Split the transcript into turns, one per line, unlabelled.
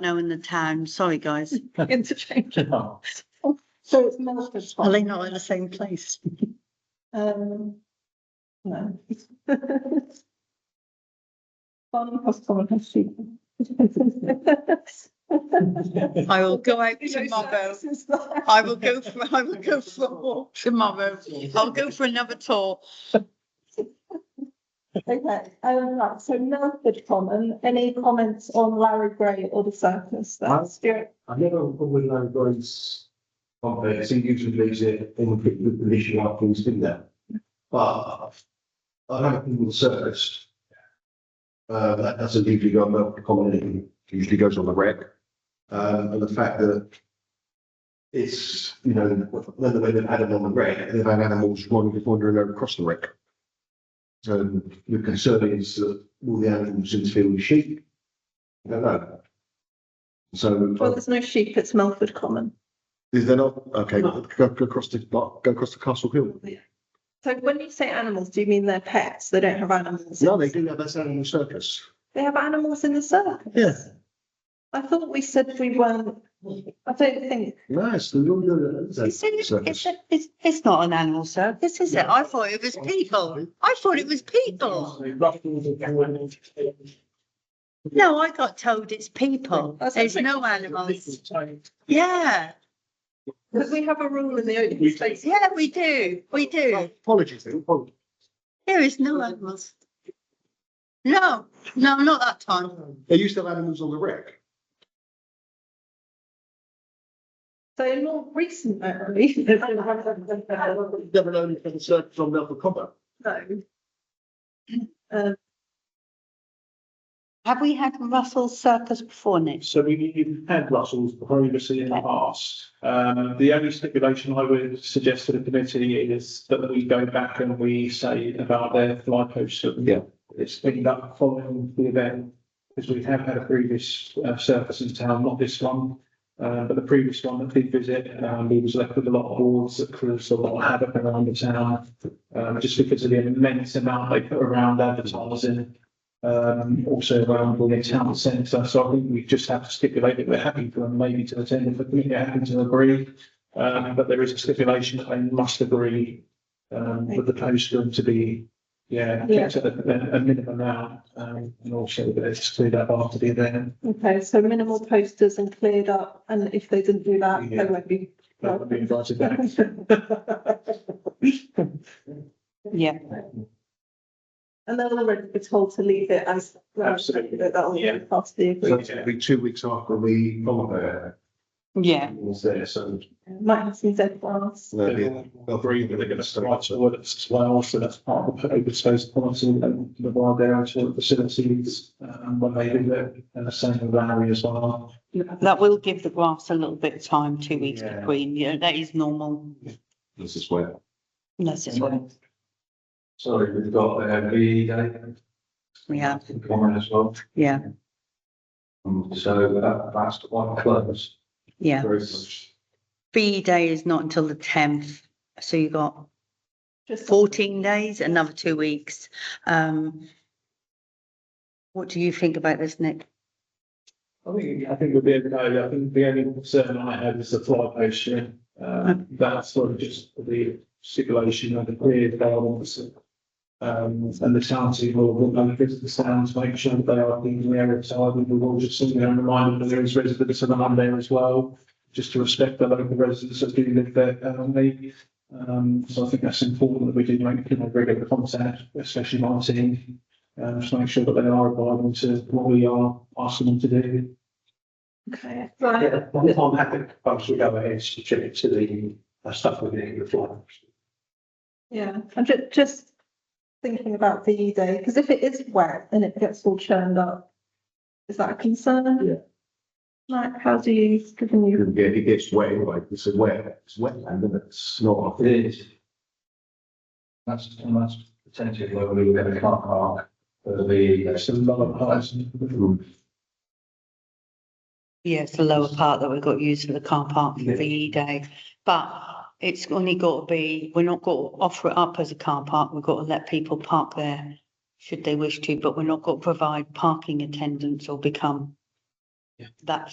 now in the town. Sorry, guys.
interchange.
No.
So it's Milford
Are
Spa.
they not in the same place?
Um, no. Barney Cross Common has sheep.
I will go out
You know,
tomorrow.
services there.
I will go for, I will go for a walk tomorrow. I'll go for another tour.
Okay, um, right, so Milford Common, any comments on Larry Gray or the circus there?
No.
Stuart,
I never probably know Grace of uh, it, so usually leaves it in the good position after he's been there. But I haven't been surfaced. Uh, that doesn't usually go on the common, it usually goes on the rec. Um, and the fact that it's, you know, the way they've had them on the rec, they've had animals wandering, wandering over across the rec. So the concern is that will the animals interfere with sheep? I don't know. So.
well, there's no sheep, it's Milford Common.
Is there not? Okay,
No.
go, go across the, go across the Castle Hill.
So when you say animals, do you mean they're pets? They don't have animals?
No, they do have that animal circus.
They have animals in the circus?
Yeah.
I thought we said we weren't, I don't think,
No, it's the London it's
It's,
a
in-
circus.
it's, a- it's, it's not an animal circus, is it? I thought it was people. I thought it was people. No, I got told it's people. There's no animals. Yeah,
because we have a rule in the open space.
yeah, we do. We do.
Apologies, apologies.
There is no animals. No, no, not that time.
They used to have animals on the wreck.
So in more recent memory. No.
Never known if they had circus on Melbourne Common.
Um,
Have we had Russell's circus before, Nick?
So we, we've had Russell's privacy in the
Okay.
past. Um, the only stipulation I would suggest to the committee is that we go back and we say about their fly post. that
Yeah.
It's been up following the event, because we have had a previous uh, service in town, not this one. Uh, but the previous one that did visit, um, he was left with a lot of boards that caused a lot of havoc around the town. Um, just because of the immense amount they put around advertising um, also around the town centre. So I think we just have to stipulate that we're happy for them maybe to attend if the committee happen to agree. Um, but there is a stipulation that they must agree, um, with the postman to be, yeah, kept at a, a minimum amount. Um, and also that it's cleared up after the event.
Okay, so minimal posters and cleared up, and if they didn't do that, they
Yeah.
won't be.
That would be invited back.
Yeah.
And they'll already be told to leave it as. uh,
Absolutely.
That will be
Yeah.
part of the
So
agreement.
it's gonna be two weeks after the Common
Yeah.
was there, so.
Might have some dead ones.
they'll be-
They'll agree that they're going to start to work as well, so that's part of the open space policy and provide their actual facilities, um, when they do that, and the uh, same with Larry as well.
That will give the grass a little bit of time, two weeks
Yeah.
between, you know, that is normal.
This is where.
That's just what
Sorry, we've got the
uh,
V day.
we have,
Common as well.
yeah,
So
uh,
that, that's quite close.
yeah.
Very close.
B day is not until the tenth, so you got
Just-
fourteen days, another two weeks. Um. What do you think about this, Nick?
I think, I think we'll be okay. I think the only concern I have is the fly posting. Um, that's sort of just the stipulation of the period they are obviously. Um, and the town team will, will make the sounds, make sure that they are being aware of time. And we'll just send them a reminder that there is residents of the land there as well, just to respect the local residents that do live there currently. Um, so I think that's important that we do make, you know, regular contact, especially Martin. Um, just make sure that they are abiding to what we are asking them to do.
Okay, right,
Yeah, I'm I'm happy, once we go ahead, subject to the uh, stuff we're doing with flyers.
yeah, I'm ju- just thinking about VE day, because if it is wet and it gets all churned up, is that a concern?
Yeah.
Like, how do you, given you,
It gets, it gets wet anyway, it's a wet, it's wetland, and it's not. It is.
That's, and that's potentially where we were gonna car park for the.
It's a lot of parts.
Yeah, it's the lower part that we've got used for the car park for
Yeah.
VE day, but it's only got to be, we're not going to offer it up as a car park, we've got to let people park there should they wish to, but we're not going to provide parking attendance or become
Yeah.
that